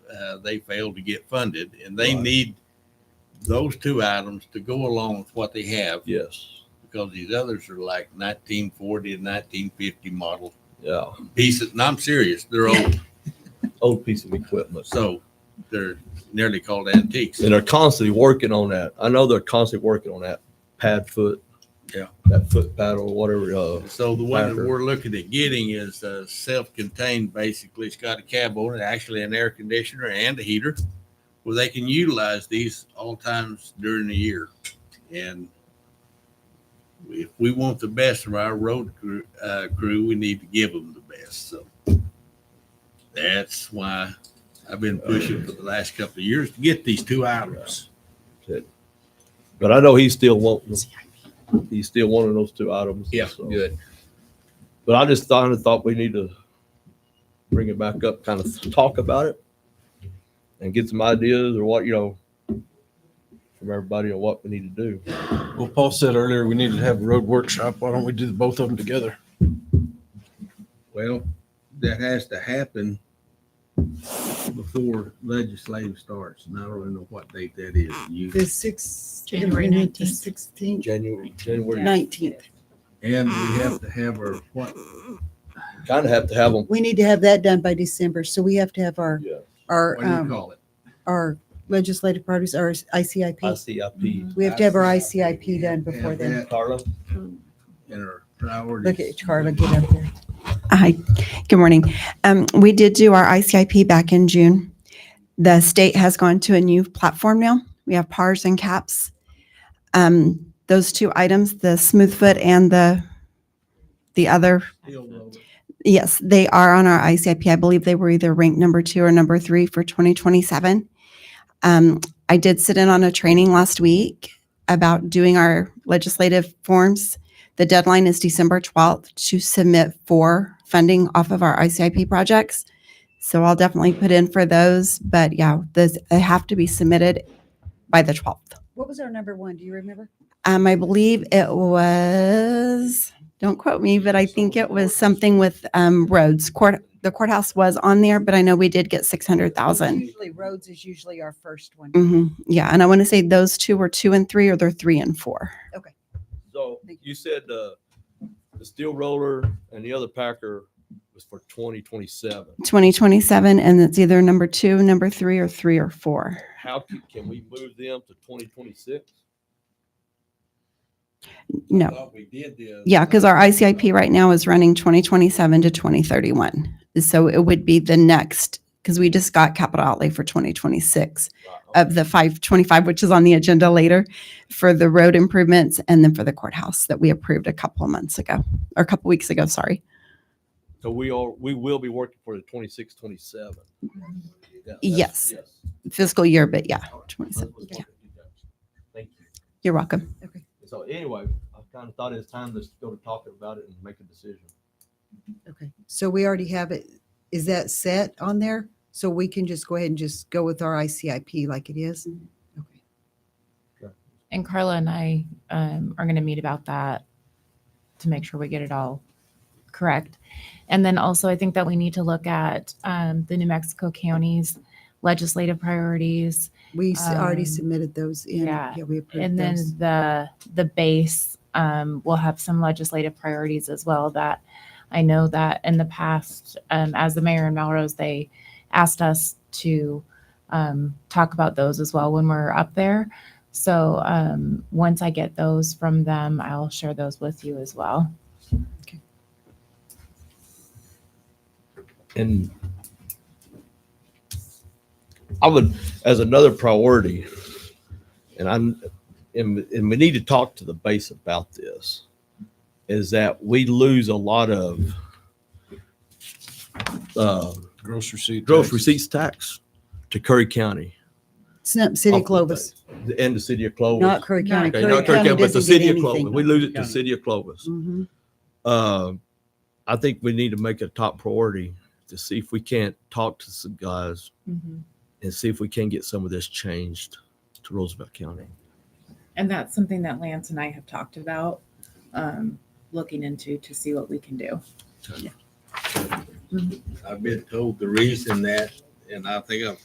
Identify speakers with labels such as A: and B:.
A: uh, they failed to get funded, and they
B: Right.
A: need those two items to go along with what they have
B: Yes.
A: because these others are like 1940 and 1950 model
B: Yeah.
A: pieces. And I'm serious, they're old,
B: Old piece of equipment.
A: so they're nearly called antiques.
B: And they're constantly working on that. I know they're constantly working on that pad foot.
A: Yeah.
B: That foot paddle, whatever. Uh,
A: So the one that
B: Packer.
A: we're looking at getting is uh, self-contained. Basically, it's got a cab on it, actually an air conditioner and a heater, where they can utilize these all times during the year. And if we want the best of our road crew, uh, crew, we need to give them the best. So that's why I've been pushing for the last couple of years to get these two items.
B: but I know he's still wanting. He's still wanting those two items.
A: Yeah,
B: so.
C: Good.
B: But I just thought, I thought we need to bring it back up, kind of talk about it and get some ideas or what, you know, from everybody on what we need to do.
D: Well, Paul said earlier we needed to have a road workshop. Why don't we do the both of them together?
E: Well, that has to happen before legislative starts, and I don't really know what date that is. You-
F: The sixth.
C: January
F: The
C: 19th.
F: sixteenth,
B: January, January,
F: nineteenth.
E: And we have to have our, what,
B: kind of have to have them.
F: We need to have that done by December, so we have to have our,
B: Yeah.
F: our,
E: what do you
F: um,
E: call it?
F: our legislative parties, our ICIP.
B: ICIP.
F: We have to have our ICIP done
E: Have
F: before then.
E: that
B: Carla?
E: And our priorities.
F: Look at Charlie, get up there.
G: Hi, good morning. Um, We did do our ICIP back in June. The state has gone to a new platform now. We have PARs and CAPS. Um, Those two items, the smooth foot and the, the other,
E: Still low.
G: yes, they are on our ICIP. I believe they were either ranked number two or number three for 2027. Um, I did sit in on a training last week about doing our legislative forms. The deadline is December 12th to submit for funding off of our ICIP projects. So I'll definitely put in for those, but yeah, those they have to be submitted by the 12th.
F: What was our number one? Do you remember?
G: Um, I believe it was, don't quote me, but I think it was something with, um, roads. Court, the courthouse was on there, but I know we did get six hundred thousand.
F: Usually roads is usually our first one.
G: Mm-hmm. Yeah, and I want to say those two were two and three, or they're three and four.
B: So
F: Thank
B: you said uh, the steel roller and the other packer was for twenty twenty-seven.
G: Twenty twenty-seven, and it's either number two, number three, or three or four.
B: How can, can we move them to twenty twenty-six?
G: No,
A: Thought we did the-
G: yeah, because our ICIP right now is running twenty twenty-seven to twenty thirty-one. So it would be the next, because we just got capital outlay for twenty twenty-six. of the 525, which is on the agenda later, for the road improvements and then for the courthouse that we approved a couple of months ago, or a couple weeks ago, sorry.
B: So we are, we will be working for the twenty-six, twenty-seven.
G: Yes. Fiscal year, but yeah,
B: Oh,
G: 27. Yeah,
B: Thank you.
G: You're welcome.
B: So anyway, I kind of thought it was time to go to talking about it and make a decision.
F: Okay, so we already have it. Is that set on there? So we can just go ahead and just go with our ICIP like it is? Okay.
C: And Carla and I um, are going to meet about that to make sure we get it all correct. And then also, I think that we need to look at um, the New Mexico counties legislative priorities
F: We s- already
C: Um,
F: submitted those in.
C: yeah,
F: Yeah, we approved
C: and then
F: those.
C: the the base um, will have some legislative priorities as well that i know that in the past um, as the mayor in melrose they asked us to um, talk about those as well when we're up there so um, once i get those from them i'll share those with you as well
B: And I would, as another priority, and I'm, and, and we need to talk to the base about this, is that we lose a lot of uh,
D: Gross receipt.
B: gross receipts tax to Curry County
F: Snip City
B: off the
F: Clovis,
B: and the city of Clovis.
F: not Curry
C: Not
F: County.
B: Okay,
F: Curry
B: not Curry
F: County
B: County, but the
F: doesn't get
B: city of Clovis.
F: anything.
B: We lose it to
A: County.
B: city of Clovis.
F: Mhm.
B: Uh, I think we need to make it a top priority to see if we can't talk to some guys
C: Mm-hmm.
B: and see if we can get some of this changed to Roosevelt County.
C: and that's something that lance and i have talked about um, looking into to see what we can do
A: I've been told the reason that, and I think I've